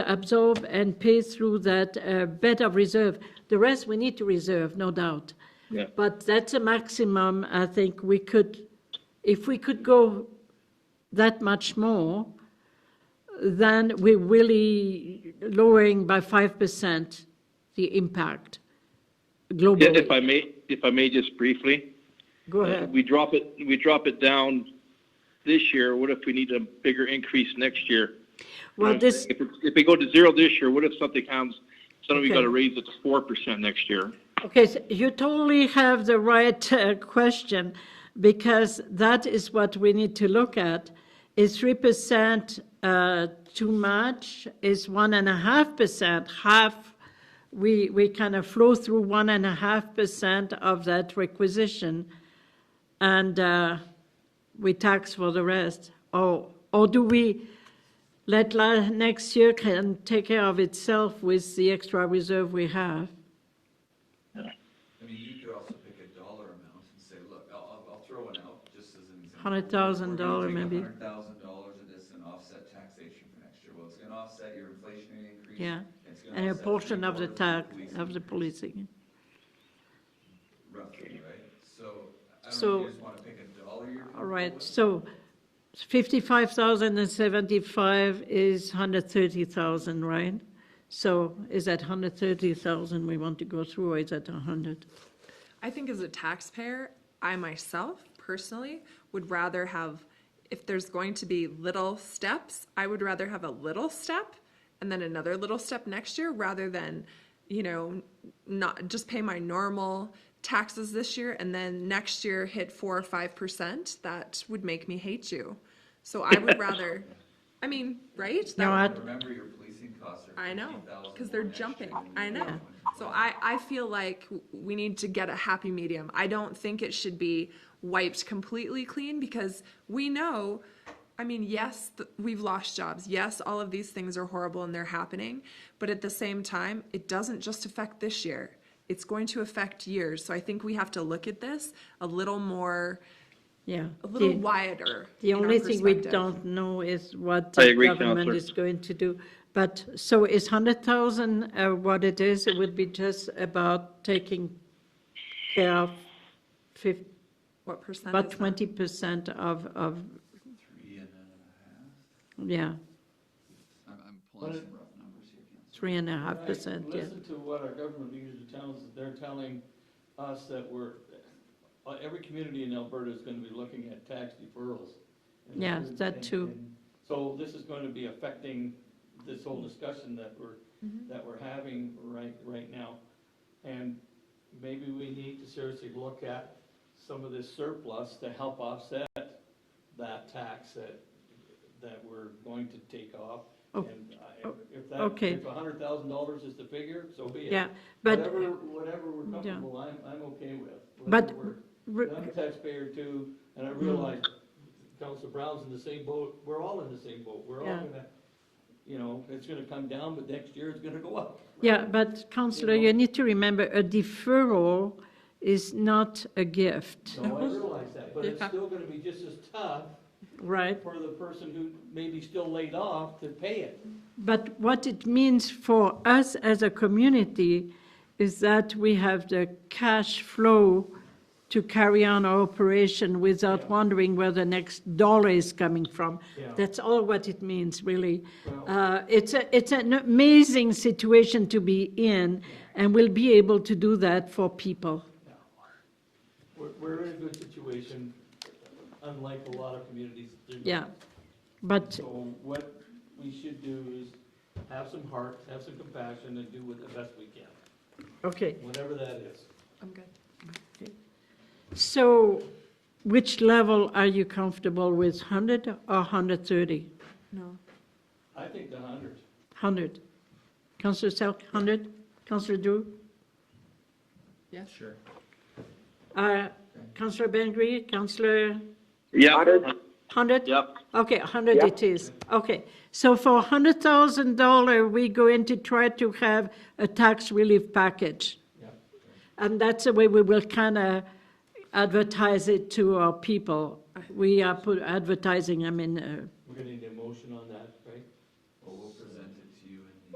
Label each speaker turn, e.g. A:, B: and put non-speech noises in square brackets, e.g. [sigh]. A: absorb and pay through that uh, better reserve. The rest we need to reserve, no doubt.
B: Yeah.
A: But that's a maximum, I think we could, if we could go that much more, then we're really lowering by 5% the impact
B: If if
A: globally.
B: I may, if I may just briefly,
A: Go
B: uh,
A: ahead.
B: we drop it, we drop it down this year, what if we need a bigger increase next year? You know what
A: Well,
B: I'm
A: this,
B: saying? If, it- if we go to zero this year, what if something comes, suddenly we
A: Okay.
B: gotta raise it to four percent next year?
A: Okay, so you totally have the right uh, question because that is what we need to look at. Is three percent uh, too much? Is one and a half percent half? We we kind of flow through one and a half percent of that requisition, and uh, we tax for the rest. Or or do we? Let la- next year can take care of itself with the extra reserve we have.
C: I mean, you could also pick a dollar amount and say, look, I'll, I'll, I'll throw one out, just as an example.
A: $100,000 maybe.
C: Hundred thousand dollars of this and offset taxation for next year, well, it's gonna offset your inflationary increase.
A: Yeah,
C: it's gonna
A: and a
C: offset
A: portion of the tax,
C: three-quarters of the
A: of the policing.
C: policing, Roughly, right, so, I don't know,
A: So-
C: if you just wanna pick a dollar you're.
A: All
C: comfortable
A: right,
C: with.
A: so 55,075 is 130,000, right? So is that 130,000 we want to go through, or is that 100?
D: I think as a taxpayer, I myself personally would rather have, if there's going to be little steps, I would rather have a little step and then another little step next year rather than, you know, not just pay my normal taxes this year and then next year hit four or five percent. That would make me hate you. So I would rather, I mean, right? That
A: No,
D: would-
A: I,
C: Remember your policing costs are
D: I know,
C: fifty thousand.
D: because they're jumping. I know. So I, I feel like w- we need to get a happy medium. I don't think it should be wiped completely clean because we know, I mean, yes, th- we've lost jobs. Yes, all of these things are horrible and they're happening. But at the same time, it doesn't just affect this year, it's going to affect years. So I think we have to look at this a little more,
A: yeah.
D: a little
A: The-
D: wider.
A: The
D: in our
A: only thing we
D: perspective.
A: don't know is what
B: I
A: the
B: agree,
A: government
B: Counselor.
A: is going to do. But, so is 100,000 uh, what it is? It would be just about taking care of 50,
D: What percent
A: about
D: is that?
A: 20% of, of,
C: Three and a half,
A: yeah.
C: I'm, I'm pulling some rough numbers here, Counselor.
A: Three and a half
E: Right.
A: percent, yeah.
E: Listen to what our government leaders are telling us, that they're telling us that we're, uh, every community in Alberta is gonna be looking at tax deferrals. And
A: Yeah,
E: this is-
A: that
E: and-
A: too.
E: and So this is gonna be affecting this whole discussion that we're,
A: Mm-hmm.
E: that we're having right, right now. And maybe we need to seriously look at some of this surplus to help offset that tax that, that we're going to take off.
A: Oh,
E: And I-
A: oh,
E: if that,
A: okay.
E: if hundred thousand dollars is the figure, so be it.
A: Yeah, but,
E: Whatever, whatever we're comfortable, I'm, I'm okay with.
A: But- Mm-hmm.
E: Whatever
A: re-
E: works. I'm a taxpayer too, and I realize Council Brown's in the same boat, we're all in the same boat, we're all
A: Yeah.
E: gonna, you know, it's gonna come down, but next year it's gonna go up.
A: [laughs] yeah, but councillor, you need to remember, a deferral is not a gift,
E: So I realize that, but it's
D: Yeah.
E: still gonna be just as tough
A: right?
E: for the person who may be still laid off to pay it.
A: But what it means for us as a community is that we have the cash flow to carry on our operation without
E: Yeah.
A: wondering where the next dollar is coming from.
E: Yeah.
A: That's all what it means, really.
E: Well-
A: Uh, It's, a- it's an amazing situation to be in, and we'll be able to do that for people.
E: We're, we're in a good situation, unlike a lot of communities. They're not.
A: Yeah. But,
E: So what we should do is have some heart, have some compassion, and do what the best we can,
A: okay,
E: whatever that is.
D: I'm good.
A: so which level are you comfortable with, 100 or 130?
D: No.
E: I think the hundred.
A: 100. Councillor Selk, 100. Councillor Drew?
D: Yes.
C: Sure.
A: Uh, Councillor Bengry, Councillor
B: Yeah.
F: Hundred.
A: 100?
B: Yep,
A: Okay, 100 it is. Okay. So for $100,000, we're going to try to have a tax relief package.
E: Yeah.
A: And that's the way we will kind of advertise it to our people. We are put advertising, I mean, uh,
E: We're gonna need a motion on that, right?
C: Well, we'll present